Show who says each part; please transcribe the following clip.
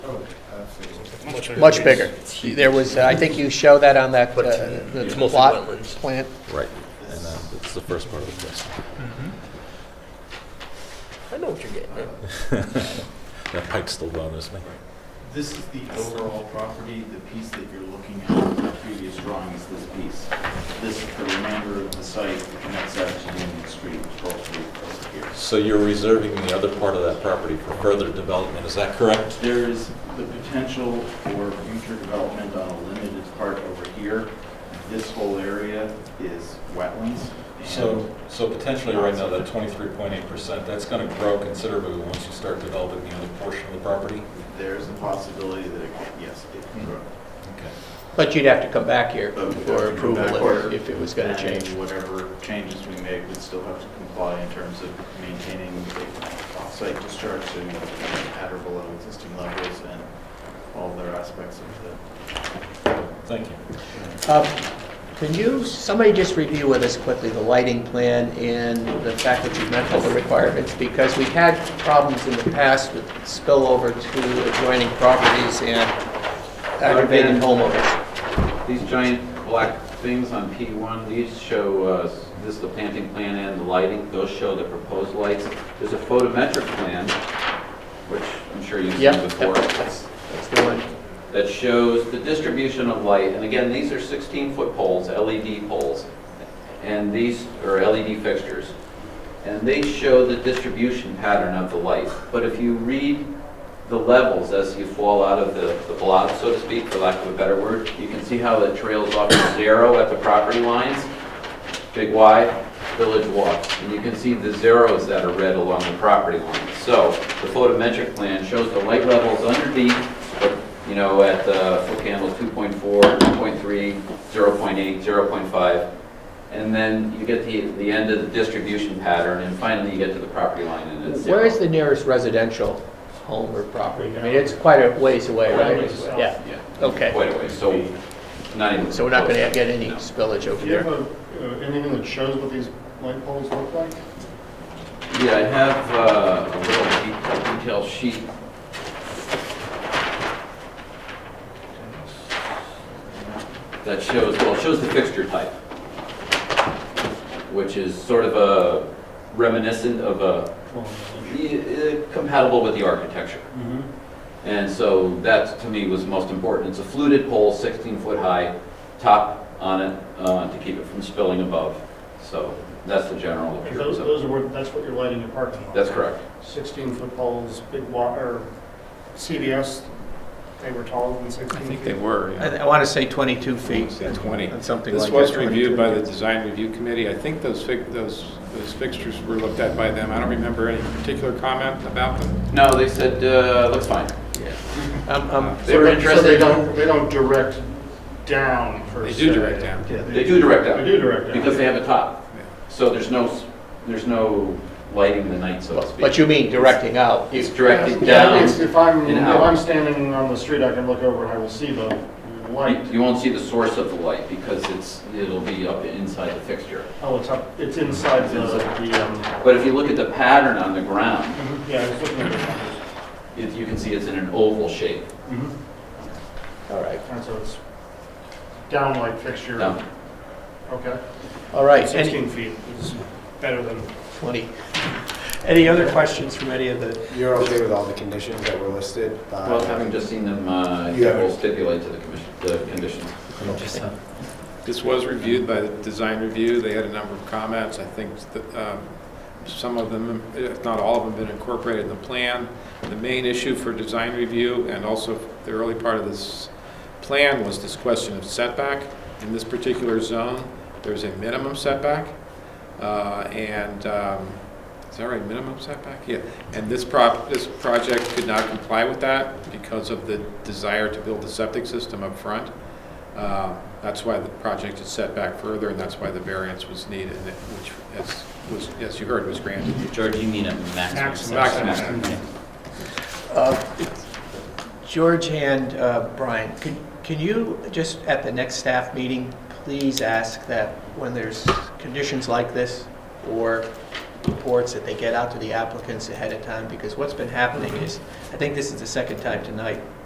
Speaker 1: Oh,
Speaker 2: Much bigger. There was, uh, I think you show that on that, uh, the
Speaker 3: It's mostly
Speaker 2: plot
Speaker 3: wetlands.
Speaker 2: plan.
Speaker 4: Right, and uh, that's the first part of the question.
Speaker 3: I know what you're getting at.
Speaker 4: That pipe's still blown, isn't it?
Speaker 1: This is the overall property, the piece that you're looking at in the previous drawing is this piece. This is the remainder of the site that connects out to Union Street, Pearl Street, over here.
Speaker 4: So you're reserving the other part of that property for further development, is that correct?
Speaker 1: There is the potential for future development on a limited part over here. This whole area is wetlands. and-
Speaker 4: So, so potentially right now, that 23.8%, that's going to grow considerably once you start developing the other portion of the property?
Speaker 1: There's a possibility that, it could- yes, it can grow.
Speaker 4: Okay.
Speaker 2: But Oh, you'd have to come back here
Speaker 1: But we'd have
Speaker 2: for
Speaker 1: to come back
Speaker 2: approval if-
Speaker 1: here.
Speaker 2: if it was going
Speaker 1: And
Speaker 2: to change.
Speaker 1: Whatever changes we make, we'd still have to comply in terms of maintaining the off-site discharge to at or below existing levels and all other aspects of the
Speaker 4: Thank you.
Speaker 2: Um, Can you, somebody just review with us quickly the lighting plan and the fact that you've met all the requirements? Because we've had problems in the past with spillover to adjoining properties and aggravating homeowners.
Speaker 5: These giant black things on P1, these show, uh, this is the planting plan and the lighting, those show the proposed lights. There's a photometric plan, which I'm sure you've
Speaker 2: Yep,
Speaker 5: seen
Speaker 2: yep,
Speaker 5: before,
Speaker 2: that's that's the one.
Speaker 5: that shows the distribution of light. And again, these are 16-foot poles, LED poles, and these are LED fixtures. And they show the distribution pattern of the light. But if you read the levels as you fall out of the, the blob, so to speak, for lack of a better word, you can see how it trails off to zero at the property lines, Big Y, Village Walk. And you can see the zeros that are red along the property line. So the photometric plan shows the light levels underneath, but, you know, at uh, foot candles 2.4, 2.3, 0.8, 0.5. And then you get to the end of the distribution pattern, and finally you get to the property line, and it's zero.
Speaker 2: Where is the nearest residential home or property? I mean, it's quite a ways away, right? Yeah,
Speaker 5: Yeah.
Speaker 2: okay.
Speaker 5: quite a way, so not even.
Speaker 2: So we're not going to
Speaker 5: close.
Speaker 2: get any
Speaker 5: No.
Speaker 2: spillage over
Speaker 6: Do you have
Speaker 2: there.
Speaker 6: a- uh, anything that shows what these light poles look like?
Speaker 5: Yeah, I have uh, a little de- detail sheet. That shows, well, it shows the fixture type, which is sort of a reminiscent of a, eh, compatible with the architecture.
Speaker 7: Mm-hmm.
Speaker 5: And so that, to me, was most important. It's a fluted pole, 16-foot high, top on it uh, to keep it from spilling above. So that's the general
Speaker 6: Because
Speaker 5: appearance
Speaker 6: Those,
Speaker 5: of it.
Speaker 6: those are, what- that's what you're lighting your parking lot.
Speaker 5: That's correct.
Speaker 6: 16-foot poles, big wa, or CVS, they were taller than 16 feet.
Speaker 7: I think they were, yeah.
Speaker 2: I want to say 22 feet.
Speaker 7: Say 20.
Speaker 2: and Something like
Speaker 7: This
Speaker 2: that.
Speaker 7: was reviewed by the Design Review Committee. I think those fig, those, those fixtures were looked at by them. I don't remember any particular comment about them.
Speaker 5: No, they said, uh, looks fine.
Speaker 2: Um, um,
Speaker 6: So
Speaker 5: They were
Speaker 6: that- so They
Speaker 5: interested,
Speaker 6: don't, they don't direct down per
Speaker 7: They
Speaker 6: se.
Speaker 7: do direct down.
Speaker 5: they do direct
Speaker 6: They do
Speaker 5: out,
Speaker 6: direct down.
Speaker 5: because they have a top. So there's no, s- there's no lighting the night, so to speak.
Speaker 2: But you mean directing out? You-
Speaker 5: It's directed
Speaker 6: Yeah,
Speaker 5: down.
Speaker 6: it's- If I'm,
Speaker 5: and
Speaker 6: if
Speaker 5: out.
Speaker 6: I'm standing on the street, I can look over and I will see the light.
Speaker 5: You- You won't see the source of the light, because it's, it'll be up inside the fixture.
Speaker 6: Oh, it's up, it's inside the, the, um,
Speaker 5: But if you look at the pattern on the ground,
Speaker 6: yeah, I was looking at the
Speaker 5: it- you can see it's in an oval shape.
Speaker 7: Mm-hmm.
Speaker 6: numbers.
Speaker 2: All right,
Speaker 6: And so it's down light fixture.
Speaker 5: Down.
Speaker 6: Okay.
Speaker 2: all right. Any-
Speaker 6: 16 feet is better than
Speaker 2: 20.
Speaker 8: Any other questions from any of the,
Speaker 9: You're okay with all the conditions that were listed? uh,
Speaker 5: Well, having just seen them, uh,
Speaker 9: You have it.
Speaker 5: will stipulate to the commission, the conditions.
Speaker 7: This was reviewed by the Design Review. They had a number of comments. I think that, um, some of them, if not all of them, been incorporated in the plan. The main issue for Design Review and also the early part of this plan was this question of setback. In this particular zone, there's a minimum setback. uh, And, um, is that right, minimum setback? Yeah. And this prop, this project could not comply with that because of the desire to build the septic system up front. Uh, That's why the project is set back further, and that's why the variance was needed, and it- which, as, was, as you heard, was granted.
Speaker 3: George, you mean a maximum
Speaker 7: Maximum.
Speaker 3: setback. Okay.
Speaker 2: Uh, George and uh, Brian, can- can you, just at the next staff meeting, please ask that when there's conditions like this, or reports that they get out to the applicants ahead of time, because what's been happening is, I think this is the second time tonight,